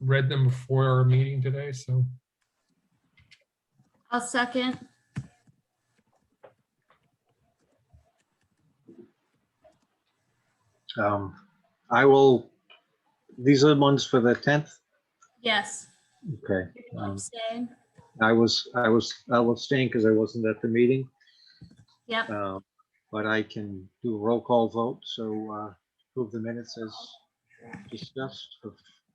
read them before our meeting today, so. I'll second. Um, I will, these are the ones for the 10th? Yes. Okay. You're gonna Um, abstain? I was, I was, I was staying because I wasn't at the meeting, Yep. uh, but I can do a roll call vote, so uh, approve the minutes as discussed of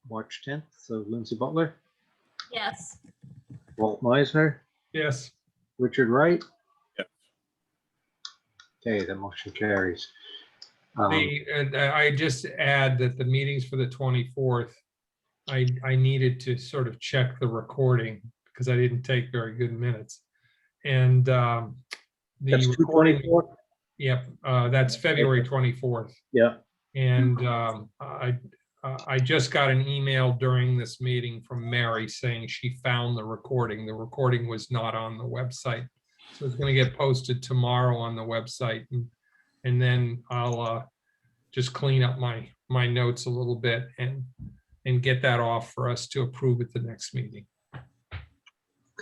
March 10th. So Lindsay Butler, Yes. Walt Meisner, Yes, Richard Wright? Okay, the motion carries. Um, the, and I just add that the meetings for the 24th, I, I needed to sort of check the recording because I didn't take very good minutes. And um, the That's recording, 224? yep, uh, that's February 24th. Yeah, And um, I, I just got an email during this meeting from Mary saying she found the recording. The recording was not on the website. So it's going to get posted tomorrow on the website. and And then I'll uh, just clean up my, my notes a little bit and, and get that off for us to approve at the next meeting.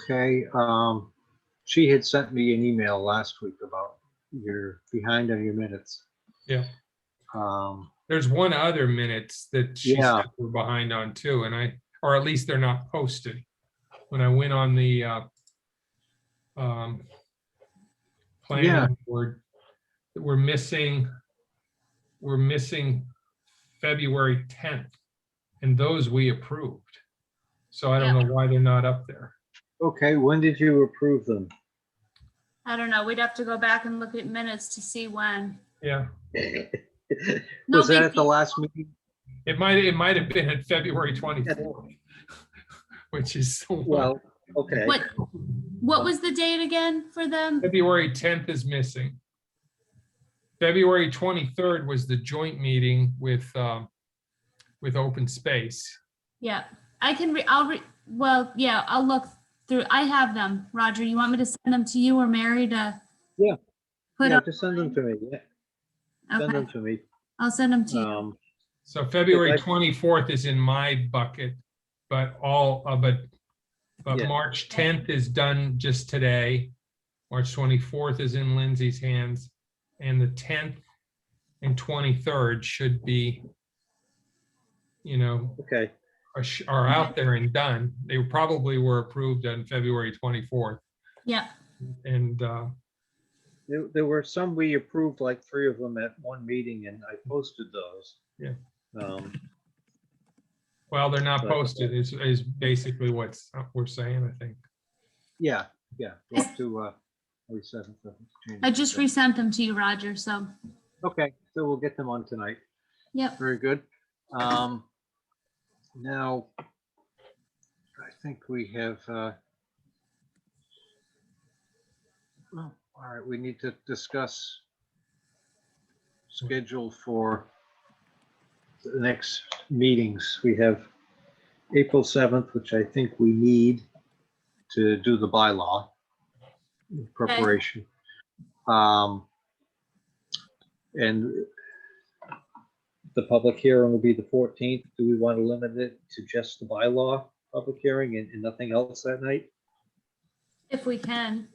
okay. um, She had sent me an email last week about you're behind on your minutes. Yeah. Um, There's one other minutes that she Yeah. said we're behind on too, and I, or at least they're not posted. When I went on the uh um Yeah. planning board, we're missing, we're missing February 10th, and those we approved. So I don't know why they're not up there. Okay, when did you approve them? I don't know. We'd have to go back and look at minutes to see when. Yeah, No Was that big at the last meeting? it might, it might have been at February 24th, which is the one- Well, okay. What, what was the date again for them? February tenth is missing. February twenty-third was the joint meeting with, um, with open space. Yeah, I can, re I'll, re well, yeah, I'll look through. I have them. Roger, you want me to send them to you or Mary to? Yeah. Put Yeah, up, just send them to me. Yeah, send okay, them to me. I'll send them to you. Um, So February Okay. twenty-fourth is in my bucket, but all, uh, but, but Yeah. March tenth is done just today. March twenty-fourth is in Lindsay's hands, and the tenth and twenty-third should be, you know, Okay, are, sh- are out there and done. They probably were approved on February twenty-fourth. Yeah, And uh, there, there were some we approved, like three of them at one meeting and I posted those. Yeah. Um, well, they're not Right. posted is, is basically what's uh, we're saying, I think. yeah, yeah, go up to, uh, we said. I just resent them to you, Roger, so, Okay, so we'll get them on tonight. yep. Very good. Um, now, I think we have, uh, well, all right, we need to discuss schedule for the next meetings. We have April 7th, which I think we need to do the bylaw in preparation. Um, and the public hearing will be the fourteenth. Do we want to limit it to just the bylaw public hearing and, and nothing else that night? If we can,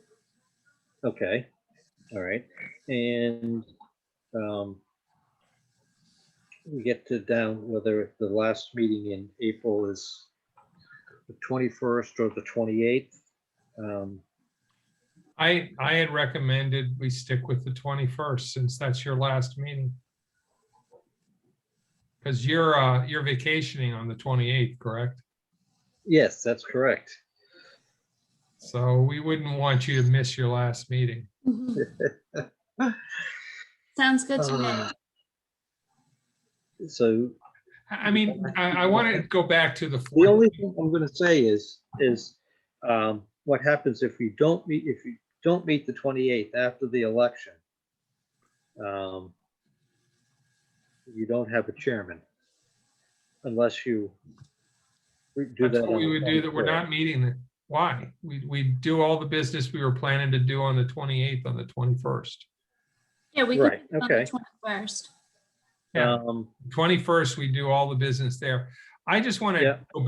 Okay, all right, and, um, we get to down whether the last meeting in April is the twenty-first or the twenty-eighth. Um, I, I had recommended we stick with the 21st since that's your last meeting. Because you're, uh, you're vacationing on the 28th, correct? yes, that's correct. So we wouldn't want you to miss your last meeting. sounds good to me. Uh, So I I mean, I, I want to go back to the. The 14th. only thing I'm gonna say is, is um, what happens if you don't meet, if you don't meet the twenty-eighth after the election? um, You don't have a chairman unless you re- do That's that. what on we the would do, that we're 24th. not meeting the, why? We, we do all the business we were planning to do on the 28th, on the 21st. Yeah, we can. Right, do it on okay. the Twenty-first. Yeah. Um, 21st, we do all the business there. I just want Yeah. to go